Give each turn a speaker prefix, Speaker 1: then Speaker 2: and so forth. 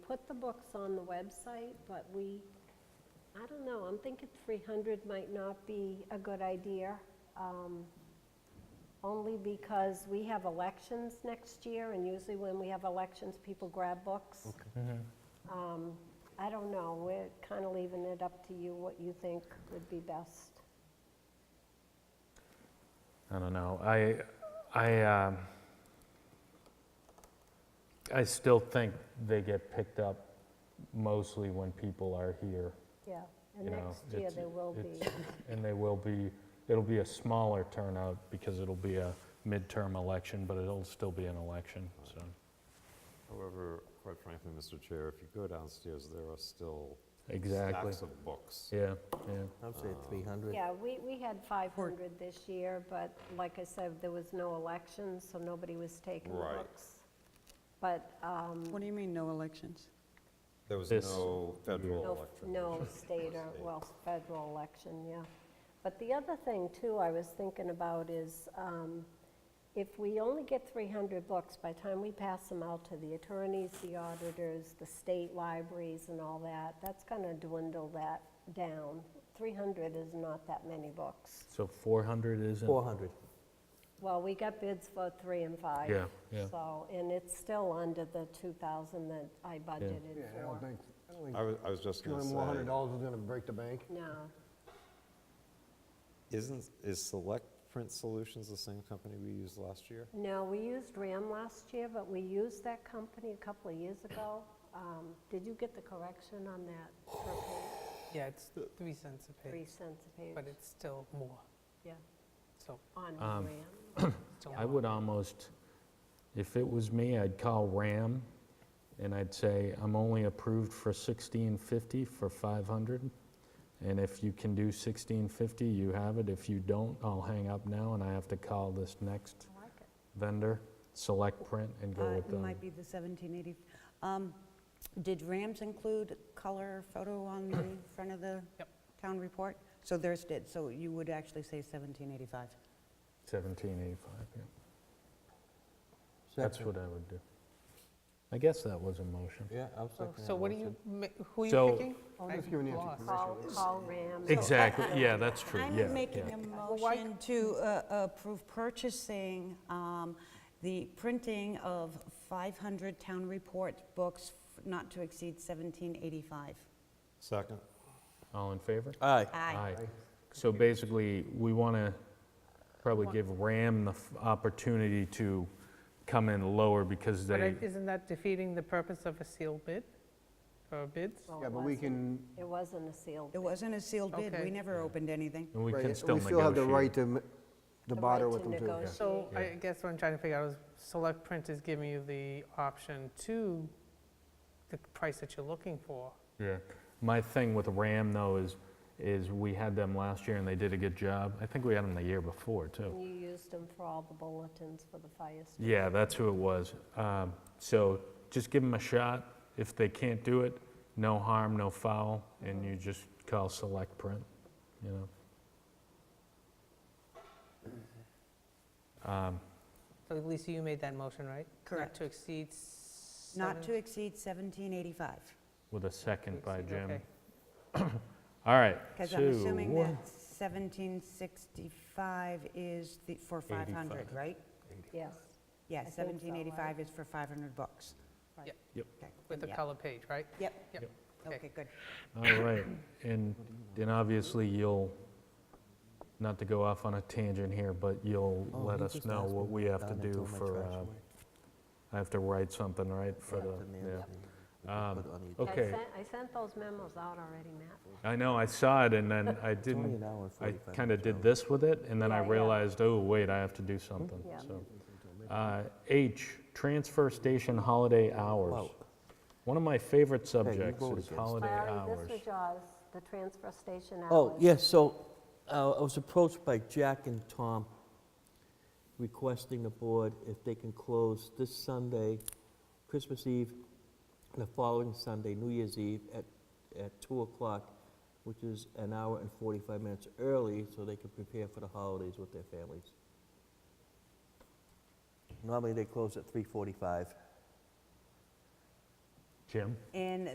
Speaker 1: put the books on the website, but we, I don't know, I'm thinking 300 might not be a good idea, um, only because we have elections next year, and usually when we have elections, people grab books.
Speaker 2: Mm-hmm.
Speaker 1: Um, I don't know, we're kind of leaving it up to you, what you think would be best.
Speaker 2: I don't know. I, I, um, I still think they get picked up mostly when people are here,
Speaker 1: Yeah, and
Speaker 2: You know,
Speaker 1: next year
Speaker 2: it's-
Speaker 1: there will be,
Speaker 2: it's- and they will be. It'll be a smaller turnout because it'll be a midterm election, but it'll still be an election. So
Speaker 3: However, quite frankly, Mr. Chair, if you go downstairs, there are still
Speaker 2: exactly.
Speaker 3: stacks of books.
Speaker 2: Yeah, yeah.
Speaker 4: I would say
Speaker 2: Uh,
Speaker 4: 300.
Speaker 1: yeah, we, we had 500 this year, but like I said, there was no election, so nobody was taking the
Speaker 3: Right.
Speaker 1: books. But, um,
Speaker 5: What do you mean, no elections?
Speaker 3: There was
Speaker 2: This-
Speaker 3: no federal
Speaker 1: no,
Speaker 3: election.
Speaker 1: no state or, well, federal election, yeah. But the other thing too, I was thinking about is, um, if we only get 300 books, by the time we pass them out to the attorneys, the auditors, the state libraries and all that, that's gonna dwindle that down. 300 is not that many books.
Speaker 2: So 400 isn't.
Speaker 4: 400.
Speaker 1: Well, we got bids for three and five.
Speaker 2: Yeah, yeah.
Speaker 1: So, and it's still under the 2,000 that I budgeted
Speaker 6: Yeah, I
Speaker 1: for.
Speaker 6: don't think, I don't think
Speaker 3: I was, I was just
Speaker 6: two
Speaker 3: gonna
Speaker 6: hundred, more hundred
Speaker 3: say,
Speaker 6: dollars is gonna break the bank.
Speaker 1: No,
Speaker 3: isn't, is Select Print Solutions the same company we used last year?
Speaker 1: no, we used RAM last year, but we used that company a couple of years ago. Um, Did you get the correction on that per page,
Speaker 7: Yeah, it's three cents a
Speaker 1: three
Speaker 7: page,
Speaker 1: cents a page?
Speaker 7: but it's still more,
Speaker 1: Yeah,
Speaker 7: so.
Speaker 1: on
Speaker 2: Um,
Speaker 1: RAM.
Speaker 7: still
Speaker 2: I
Speaker 7: more.
Speaker 2: would almost, if it was me, I'd call RAM and I'd say, I'm only approved for 1650 for 500. And if you can do 1650, you have it. If you don't, I'll hang up now and I have to call this next
Speaker 1: I like it.
Speaker 2: vendor, Select Print, and go
Speaker 8: Uh,
Speaker 2: with
Speaker 8: It
Speaker 2: them.
Speaker 8: might be the 1780. Um, Did Rams include color photo on the front of the
Speaker 7: Yep.
Speaker 8: town report? So theirs did, so you would actually say 1785.
Speaker 2: 1785, yeah. That's what I would do. I guess that was a motion.
Speaker 4: Yeah, I'll
Speaker 7: So-
Speaker 4: second
Speaker 7: So what are
Speaker 4: do
Speaker 7: you, ma- who are
Speaker 2: So-
Speaker 7: you picking?
Speaker 6: I'm
Speaker 7: I'd
Speaker 6: just
Speaker 7: be
Speaker 6: giving you
Speaker 7: lost.
Speaker 1: Call, call RAM.
Speaker 2: Exactly, yeah, that's true, yeah.
Speaker 8: I'm making
Speaker 2: yeah.
Speaker 8: a
Speaker 7: why-
Speaker 8: motion to uh, approve purchasing um, the printing of 500 town report books f- not to exceed 1785.
Speaker 3: Second?
Speaker 2: All in favor?
Speaker 4: Aye.
Speaker 2: Aye. So basically, we want to probably give RAM the f- opportunity to come in lower because
Speaker 7: But
Speaker 2: they,
Speaker 7: I- isn't that defeating the purpose of a sealed bid, or bids?
Speaker 1: Well,
Speaker 6: Yeah,
Speaker 1: it
Speaker 6: but we
Speaker 1: wasn't-
Speaker 6: can,
Speaker 1: It wasn't a sealed
Speaker 8: It wasn't a sealed bid,
Speaker 7: Okay.
Speaker 8: we never opened anything.
Speaker 2: and we
Speaker 6: right,
Speaker 2: can still
Speaker 6: we still have the right
Speaker 2: negotiate.
Speaker 6: to, m- to
Speaker 1: The
Speaker 6: barter
Speaker 1: right
Speaker 6: with
Speaker 1: to
Speaker 6: them too.
Speaker 1: negotiate.
Speaker 7: So
Speaker 2: Yeah.
Speaker 7: I guess what I'm trying to figure out is, Select Print is giving you the option to the price that you're looking for.
Speaker 2: Yeah. My thing with RAM though is, is we had them last year and they did a good job. I think we had them the year before too.
Speaker 1: You used them for all the bulletins for the fire station.
Speaker 2: Yeah, that's who it was. Um, So just give them a shot. If they can't do it, no harm, no foul, and you just call Select Print, you know? Um,
Speaker 7: So Lisa, you made that motion, right? Not
Speaker 8: Correct.
Speaker 7: to exceed
Speaker 8: Not to
Speaker 7: seven-
Speaker 8: exceed 1785.
Speaker 2: With a
Speaker 7: to
Speaker 2: second by
Speaker 7: exceed,
Speaker 2: Jim.
Speaker 7: okay.
Speaker 2: All right.
Speaker 8: Because I'm assuming
Speaker 2: so-
Speaker 8: that 1765 is the, for 500,
Speaker 2: 85.
Speaker 8: right?
Speaker 1: Yes,
Speaker 8: Yeah,
Speaker 1: I think so, right?
Speaker 8: 1785 is for 500 books.
Speaker 1: Right.
Speaker 7: Yep.
Speaker 2: Yep.
Speaker 8: Okay,
Speaker 7: With the
Speaker 8: yeah.
Speaker 7: color page, right?
Speaker 8: Yep,
Speaker 7: Yep. okay.
Speaker 8: okay, good.
Speaker 2: All right, and, and obviously you'll, not to go off on a tangent here, but you'll
Speaker 4: Oh,
Speaker 2: let
Speaker 4: you
Speaker 2: us
Speaker 4: just
Speaker 2: know
Speaker 4: asked
Speaker 2: what
Speaker 4: me
Speaker 2: we have to
Speaker 4: done
Speaker 2: do
Speaker 4: and throw my
Speaker 2: for,
Speaker 4: trash
Speaker 2: uh,
Speaker 4: away.
Speaker 2: I have to write something, right, for
Speaker 4: Yeah,
Speaker 2: the,
Speaker 4: to mail
Speaker 2: yeah.
Speaker 4: it and we
Speaker 2: Um,
Speaker 4: can put it on the-
Speaker 1: I
Speaker 2: Okay.
Speaker 1: sent- I sent those memos out already, Matt.
Speaker 2: I know, I saw it, and then I
Speaker 4: It's only an
Speaker 2: didn't,
Speaker 4: hour and
Speaker 2: I
Speaker 4: 45
Speaker 2: kind of
Speaker 4: minutes
Speaker 2: did
Speaker 4: out.
Speaker 2: this with it, and then I
Speaker 1: Yeah, yeah.
Speaker 2: realized, oh, wait, I have to do something,
Speaker 1: Yeah.
Speaker 2: so. Uh, H, transfer station holiday hours.
Speaker 4: Wow.
Speaker 2: One of my favorite subjects
Speaker 4: vote
Speaker 2: is
Speaker 4: against.
Speaker 2: holiday
Speaker 1: Larry, this
Speaker 2: hours.
Speaker 1: was yours, the transfer station hours.
Speaker 4: Oh, yes, so uh, I was approached by Jack and Tom requesting the board if they can close this Sunday, Christmas Eve, and the following Sunday, New Year's Eve, at, at 2 o'clock, which is an hour and 45 minutes early, so they can prepare for the holidays with their families. Normally, they close at 3:45.
Speaker 2: Jim?
Speaker 8: And